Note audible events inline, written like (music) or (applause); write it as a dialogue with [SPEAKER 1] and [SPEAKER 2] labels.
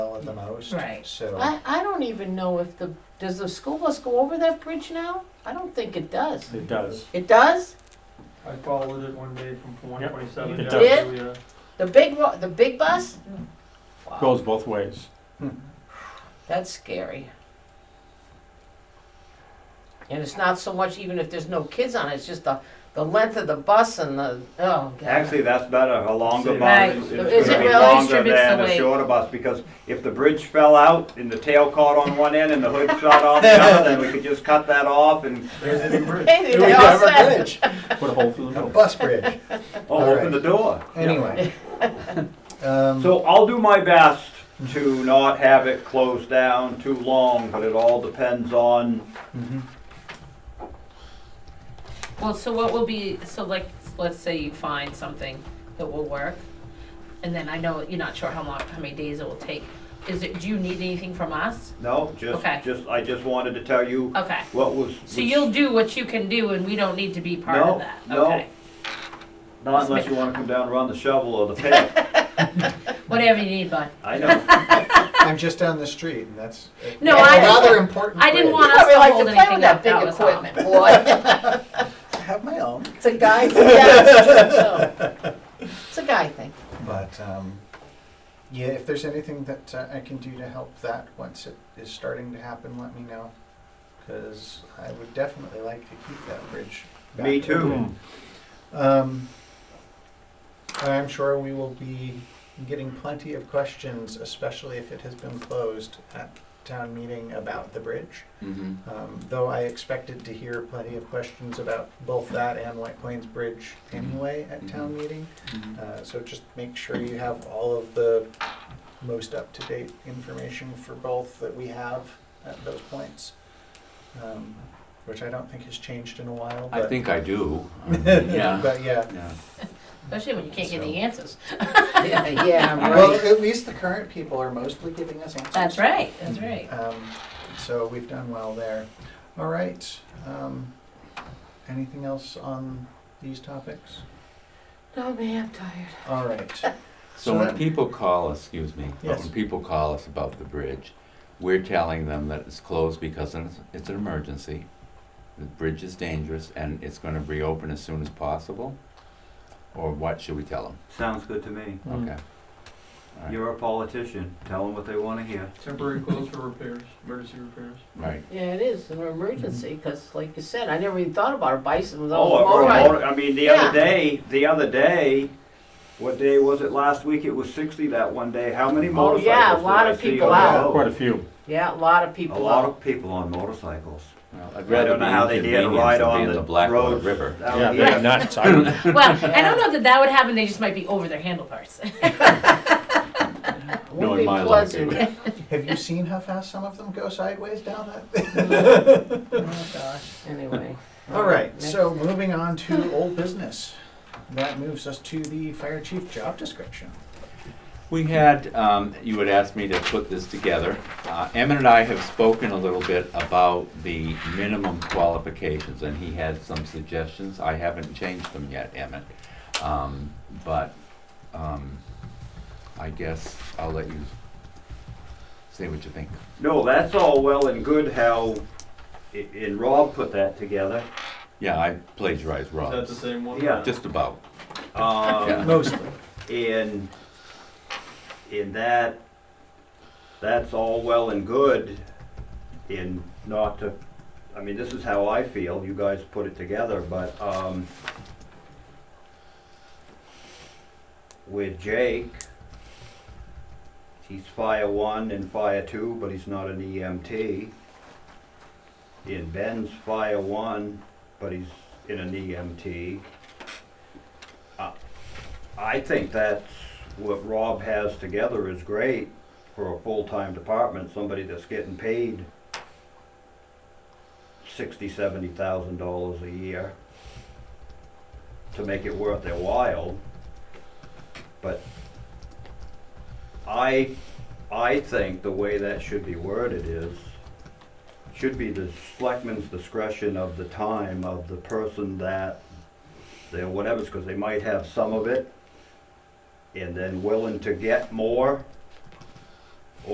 [SPEAKER 1] out the most.
[SPEAKER 2] Right.
[SPEAKER 1] So,
[SPEAKER 3] I, I don't even know if the, does the school bus go over that bridge now? I don't think it does.
[SPEAKER 4] It does.
[SPEAKER 3] It does?
[SPEAKER 5] I followed it one day from one twenty-seven.
[SPEAKER 4] Yep. It
[SPEAKER 3] does. The big, ro- the big bus? Wow,
[SPEAKER 4] Goes both ways.
[SPEAKER 3] that's scary. And it's not so much even if there's no kids on it, it's just the, the length of the bus and the, oh, (laughs) God.
[SPEAKER 6] Actually, that's better, a longer bus
[SPEAKER 2] Right. (laughs)
[SPEAKER 3] Is
[SPEAKER 6] is it's
[SPEAKER 3] it
[SPEAKER 6] gonna be
[SPEAKER 3] really?
[SPEAKER 6] longer
[SPEAKER 2] Distributes
[SPEAKER 6] than
[SPEAKER 2] the
[SPEAKER 6] a
[SPEAKER 2] weight.
[SPEAKER 6] shorter bus, because if the bridge fell out and the tail caught on one end and the hood shot off the other, then we could just cut that
[SPEAKER 5] (laughs)
[SPEAKER 6] off and
[SPEAKER 5] There's any bridge.
[SPEAKER 3] Hey,
[SPEAKER 1] do
[SPEAKER 3] they
[SPEAKER 1] we
[SPEAKER 3] all
[SPEAKER 1] have a
[SPEAKER 3] said-
[SPEAKER 1] bridge?
[SPEAKER 4] Put a hole through the
[SPEAKER 1] A
[SPEAKER 4] middle.
[SPEAKER 1] bus
[SPEAKER 2] (laughs)
[SPEAKER 1] bridge.
[SPEAKER 6] oh,
[SPEAKER 1] All
[SPEAKER 6] open the door.
[SPEAKER 1] Anyway. Um,
[SPEAKER 6] So I'll do my best to not have it closed down too long, but it all depends on,
[SPEAKER 1] mhm.
[SPEAKER 2] Well, so what will be, so like, let's say you find something that will work, and then I know you're not sure how long, how many days it will take. Is it, do you need anything from us?
[SPEAKER 6] no, just,
[SPEAKER 2] Okay.
[SPEAKER 6] just, I just wanted to tell you
[SPEAKER 2] Okay.
[SPEAKER 6] what was.
[SPEAKER 2] So you'll do what you can do, and we don't need to be part
[SPEAKER 6] No,
[SPEAKER 2] of that?
[SPEAKER 6] no.
[SPEAKER 2] Okay.
[SPEAKER 6] Not unless
[SPEAKER 2] (laughs)
[SPEAKER 6] you wanna come down and run the shovel or the pick,
[SPEAKER 2] Whatever you need, bud.
[SPEAKER 6] I know.
[SPEAKER 2] (laughs)
[SPEAKER 1] I'm just down the street and that's.
[SPEAKER 2] No,
[SPEAKER 1] that's
[SPEAKER 2] I-
[SPEAKER 1] Another important.
[SPEAKER 2] I didn't
[SPEAKER 1] bridge.
[SPEAKER 2] want
[SPEAKER 3] You
[SPEAKER 2] us
[SPEAKER 3] probably
[SPEAKER 2] to
[SPEAKER 3] like
[SPEAKER 2] hold
[SPEAKER 3] to play
[SPEAKER 2] anything
[SPEAKER 3] with
[SPEAKER 2] up,
[SPEAKER 3] that big
[SPEAKER 2] that was all.
[SPEAKER 3] equipment, boy.
[SPEAKER 1] I have my own,
[SPEAKER 3] It's a guy, thing. yeah, it's true, so. It's a guy thing.
[SPEAKER 1] but, um, yeah, if there's anything that uh, I can do to help that once it is starting to happen, let me know. Cause I would definitely like to keep that bridge. back
[SPEAKER 6] Me too.
[SPEAKER 1] open. Um, I'm sure we will be getting plenty of questions, especially if it has been closed at town meeting about the bridge.
[SPEAKER 7] Mm-hmm.
[SPEAKER 1] Um, though I expected to hear plenty of questions about both that and White Plains Bridge
[SPEAKER 7] Mm-hmm.
[SPEAKER 1] anyway at town meeting. Uh, so just make sure you have all of the most up-to-date information for both that we have at those points. Um, which I don't think has changed in a while,
[SPEAKER 7] I
[SPEAKER 1] but- (laughs)
[SPEAKER 7] think I do. Um, Yeah.
[SPEAKER 1] But yeah,
[SPEAKER 7] Yeah.
[SPEAKER 2] Especially when you can't get
[SPEAKER 1] So-
[SPEAKER 2] the answers.
[SPEAKER 3] Yeah,
[SPEAKER 1] well,
[SPEAKER 3] right.
[SPEAKER 1] at least the current people are mostly giving us answers.
[SPEAKER 2] That's right, that's right.
[SPEAKER 1] Um, so we've done well there. All right. Um, anything else on these topics?
[SPEAKER 3] No, Oh, man, I'm tired.
[SPEAKER 1] All right.
[SPEAKER 7] (laughs) So when people call us, excuse me, but
[SPEAKER 1] Yes.
[SPEAKER 7] when people call us about the bridge, we're telling them that it's closed because it's it's an emergency. The bridge is dangerous and it's gonna reopen as soon as possible? Or what should we tell them?
[SPEAKER 6] Sounds good to me.
[SPEAKER 4] Mm.
[SPEAKER 7] Okay. All right.
[SPEAKER 6] You're a politician. Tell them what they want to hear.
[SPEAKER 5] Temporary closed for repairs, emergency repairs.
[SPEAKER 7] Right.
[SPEAKER 3] Yeah, it is an emergency because, like you said, I never even thought about a bicycle. Those
[SPEAKER 6] Oh, or a
[SPEAKER 3] motorbike-
[SPEAKER 6] motor- I mean, the
[SPEAKER 3] Yeah.
[SPEAKER 6] other day, the other day, what day was it last week? It was sixty that one day. How many
[SPEAKER 3] Oh,
[SPEAKER 6] motorcycles?
[SPEAKER 3] yeah, a
[SPEAKER 6] did
[SPEAKER 3] lot
[SPEAKER 6] I
[SPEAKER 3] of
[SPEAKER 6] see
[SPEAKER 3] people
[SPEAKER 6] on the
[SPEAKER 3] out.
[SPEAKER 5] Oh.
[SPEAKER 6] road?
[SPEAKER 4] Quite a few.
[SPEAKER 3] Yeah, a lot of
[SPEAKER 6] A
[SPEAKER 3] people.
[SPEAKER 6] lot of people on motorcycles.
[SPEAKER 7] Well, I'd
[SPEAKER 6] I
[SPEAKER 7] rather
[SPEAKER 6] don't
[SPEAKER 7] be
[SPEAKER 6] know how they did
[SPEAKER 7] inconvenienced
[SPEAKER 6] right
[SPEAKER 7] than
[SPEAKER 6] on
[SPEAKER 7] be in
[SPEAKER 6] the
[SPEAKER 7] the Blackwater
[SPEAKER 6] road.
[SPEAKER 7] River.
[SPEAKER 6] Out
[SPEAKER 4] Yeah,
[SPEAKER 6] here.
[SPEAKER 4] they're
[SPEAKER 2] (laughs)
[SPEAKER 4] nuts. I don't-
[SPEAKER 2] Well, I don't know that that would happen, they just might be over their handlebars. (laughs)
[SPEAKER 3] It
[SPEAKER 7] No,
[SPEAKER 3] Wouldn't
[SPEAKER 7] in
[SPEAKER 3] be
[SPEAKER 7] my life,
[SPEAKER 3] pleasant.
[SPEAKER 7] it
[SPEAKER 1] Have you seen how fast some of them go sideways down that? (laughs)
[SPEAKER 3] Oh, gosh,
[SPEAKER 7] (laughs)
[SPEAKER 3] anyway.
[SPEAKER 1] All right.
[SPEAKER 3] next.
[SPEAKER 1] So moving on to old business. That moves us to the fire chief job description.
[SPEAKER 7] (laughs) We had, um, you had asked me to put this together. Uh, Emmett and I have spoken a little bit about the minimum qualifications, and he had some suggestions. I haven't changed them yet, Emmett. Um, but, um, I guess I'll let you say what you think.
[SPEAKER 6] No, that's all well and good. How, i- and Rob put that together.
[SPEAKER 7] Yeah, I plagiarized
[SPEAKER 5] Is that the
[SPEAKER 7] Rob's,
[SPEAKER 5] same one?
[SPEAKER 6] Yeah.
[SPEAKER 7] just about.
[SPEAKER 6] Um,
[SPEAKER 1] Mostly.
[SPEAKER 6] And in that, that's all well and good in not to, I mean, this is how I feel, you guys put it together, but, um, with Jake, he's fire one and fire two, but he's not an EMT. And Ben's fire one, but he's in an E EMT. I think that's what Rob has together is great for a full-time department, somebody that's getting paid sixty, seventy thousand dollars a year to make it worth their while. But I, I think the way that should be worded is, should be the selectman's discretion of the time of the person that they're whatever's, because they might have some of it, and then willing to get more